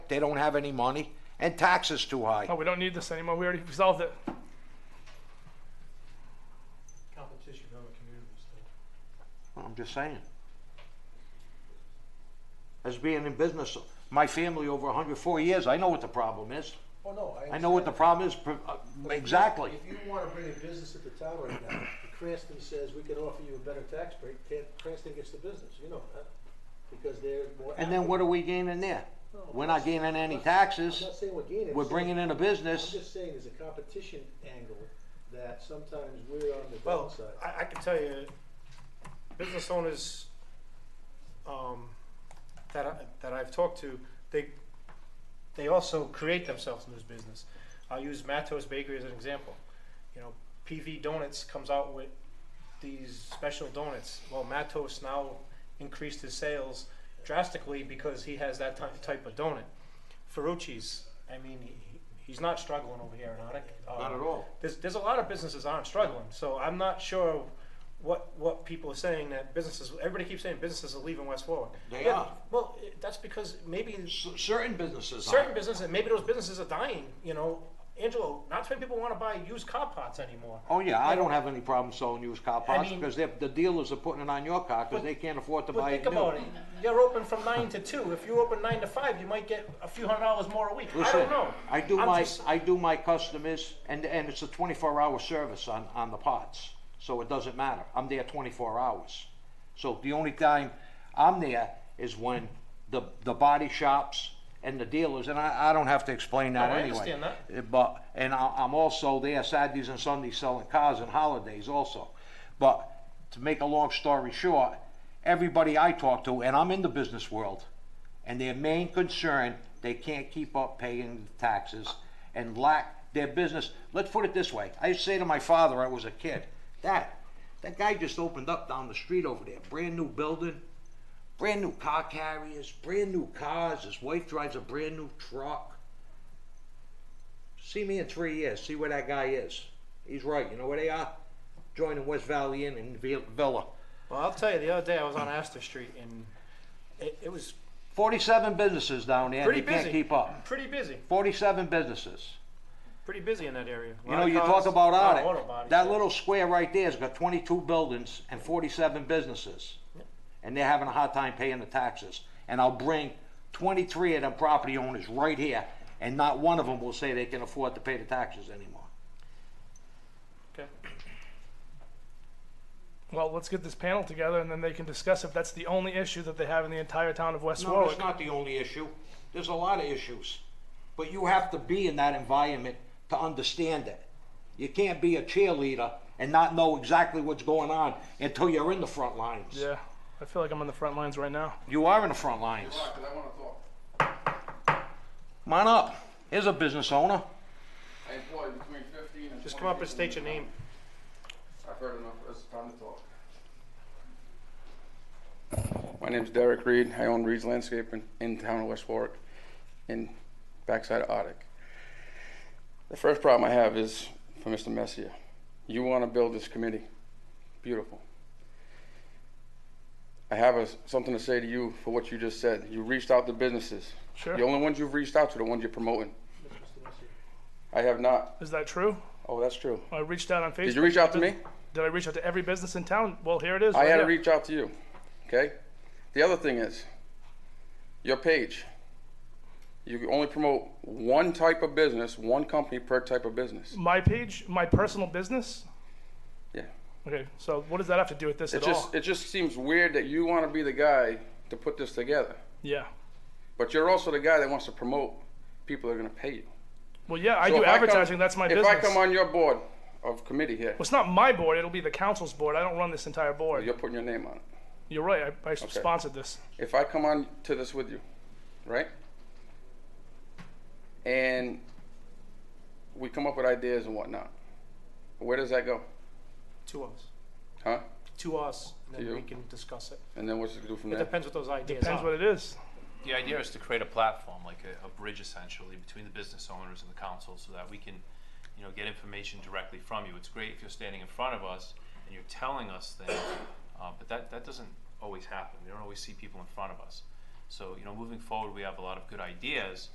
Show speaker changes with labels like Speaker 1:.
Speaker 1: They don't have any money, and taxes too high.
Speaker 2: No, we don't need this anymore. We already solved it.
Speaker 3: competition from other communities. though.
Speaker 1: I'm just saying. As being in business, my family over 104 years, I know what the problem is.
Speaker 3: Oh, no, I.
Speaker 1: I know what the
Speaker 3: understand.
Speaker 1: problem is, pr- uh, exactly.
Speaker 3: If you wanna bring a business at the town right now, Cranston says we can offer you a better tax break, Cran- Cranston gets the business, you know that, because they're more.
Speaker 1: And then what are we gaining there? We're not gaining any
Speaker 3: I'm
Speaker 1: taxes,
Speaker 3: not saying we're gaining. I'm
Speaker 1: we're
Speaker 3: saying-
Speaker 1: bringing in a
Speaker 3: I'm
Speaker 1: business.
Speaker 3: just saying there's a competition angle that sometimes we're on the
Speaker 4: Well,
Speaker 3: downside.
Speaker 4: I, I can tell you, business owners, um, that I, that I've talked to, they, they also create themselves in this business. I'll use Matos Bakery as an example. You know, PV Donuts comes out with these special donuts. Well, Matos now increased his sales drastically because he has that type, type of donut. Ferrucci's, I mean, he, he's not struggling over here in Arctic.
Speaker 1: Not at all.
Speaker 4: There's, there's a lot of businesses aren't struggling, so I'm not sure what, what people are saying that businesses, everybody keeps saying businesses are leaving West Warwick.
Speaker 1: They
Speaker 4: Yeah,
Speaker 1: are.
Speaker 4: Well, i- that's because maybe
Speaker 1: C- Certain businesses are.
Speaker 4: certain businesses, maybe those businesses are dying, you know. Angelo, not too many people wanna buy used car parts anymore.
Speaker 1: Oh, yeah, I don't have any problem selling used car parts
Speaker 4: mean-
Speaker 1: because they're- the dealers are putting it on your car because
Speaker 4: But-
Speaker 1: they can't afford to
Speaker 4: But
Speaker 1: buy
Speaker 4: think
Speaker 1: it new.
Speaker 4: about it, you're open from nine to two, if you open nine to five, you might get a few hundred dollars more a week, I
Speaker 1: Listen,
Speaker 4: don't know.
Speaker 1: I do
Speaker 4: I'm
Speaker 1: my,
Speaker 4: just-
Speaker 1: I do my customers, and, and it's a twenty-four hour service on, on the pots, so it doesn't matter, I'm there twenty-four hours. So the only time I'm there is when the, the body shops and the dealers, and I, I don't have to explain that
Speaker 4: No, I
Speaker 1: anyway.
Speaker 4: understand that.
Speaker 1: Uh, But, and I, I'm also there Saturdays and Sundays selling cars and holidays also. But to make a long story short, everybody I talk to, and I'm in the business world, and their main concern, they can't keep up paying taxes and lack their business. Let's put it this way. I used to say to my father, I was a kid, Dad, that guy just opened up down the street over there, brand new building, brand new car carriers, brand new cars. His wife drives a brand new truck. See me in three years. See where that guy is. He's right. You know where they are? Joining West Valley Inn and Vi- Villa.
Speaker 4: Well, I'll tell you, the other day I was on Astor Street and it, it was
Speaker 1: Forty-seven businesses down there. and
Speaker 4: pretty
Speaker 1: they can't
Speaker 4: busy.
Speaker 1: keep up.
Speaker 4: Pretty busy,
Speaker 1: Forty-seven businesses.
Speaker 4: pretty busy in that area.
Speaker 1: You know, you talk about Arctic. That little square right there's got twenty-two buildings and forty-seven businesses. And they're having a hard time paying the taxes. And I'll bring twenty-three of them property owners right here, and not one of them will say they can afford to pay the taxes anymore.
Speaker 4: Okay.
Speaker 2: Well, let's get this panel together and then they can discuss if that's the only issue that they have in the entire town of West
Speaker 1: No,
Speaker 2: Warwick.
Speaker 1: that's not the only issue. There's a lot of issues. But you have to be in that environment to understand it. You can't be a cheerleader and not know exactly what's going on until you're in the front lines.
Speaker 2: Yeah, I feel like I'm on the front lines right now.
Speaker 1: You are in the front lines.
Speaker 5: I want to talk.
Speaker 1: Come on up. Here's a business owner.
Speaker 5: I employ between 15 and
Speaker 4: Just
Speaker 5: 20
Speaker 4: come up and
Speaker 5: people
Speaker 4: state
Speaker 5: in
Speaker 4: your
Speaker 5: the
Speaker 4: name.
Speaker 5: town. I've heard enough. It's time to talk. My name's Derek Reed. I own Reed's Landscaping in town of West Warwick, in backside of Otic. The first problem I have is for Mr. Messier. You want to build this committee. Beautiful. I have a, something to say to you for what you just said. You reached out to businesses.
Speaker 2: Sure.
Speaker 5: The only ones you've reached out to are the ones you're promoting.
Speaker 3: Mr. Messi.
Speaker 5: I have not.
Speaker 2: Is that true?
Speaker 5: Oh, that's true.
Speaker 2: I reached out on Facebook.
Speaker 5: Did you reach out to me?
Speaker 2: Did I reach out to every business in town? Well, here it is.
Speaker 5: I
Speaker 2: right
Speaker 5: had to
Speaker 2: here.
Speaker 5: reach out to you. Okay? The other thing is your page. You can only promote one type of business, one company per type of business.
Speaker 2: my page, my personal business.
Speaker 5: Yeah.
Speaker 2: Okay, so what does that have to do with this
Speaker 5: It
Speaker 2: at all?
Speaker 5: just it just seems weird that you want to be the guy to put this together.
Speaker 2: Yeah.
Speaker 5: But you're also the guy that wants to promote people that are gonna pay you.
Speaker 2: Well, yeah, I
Speaker 5: So
Speaker 2: do
Speaker 5: if come-
Speaker 2: advertising. that's my
Speaker 5: if
Speaker 2: business.
Speaker 5: I come on your board of committee here,
Speaker 2: Well, it's not my board. It'll be the council's board. I don't run this entire board.
Speaker 5: you're putting your name on it.
Speaker 2: You're right. I, I sponsored this.
Speaker 5: if I come on to this with you, right? And we come up with ideas and whatnot. Where does that go?
Speaker 4: To us,
Speaker 5: Huh?
Speaker 4: to us, and
Speaker 5: you.
Speaker 4: then we can discuss it.
Speaker 5: And then what's it do from
Speaker 4: It
Speaker 5: there?
Speaker 4: depends what those ideas
Speaker 2: Depends what
Speaker 4: are.
Speaker 2: it is.
Speaker 6: The idea is to create a platform, like a, a bridge essentially, between the business owners and the council so that we can, you know, get information directly from you. It's great if you're standing in front of us and you're telling us things, uh, but that, that doesn't always happen. We don't always see people in front of us. So, you know, moving forward, we have a lot of good ideas,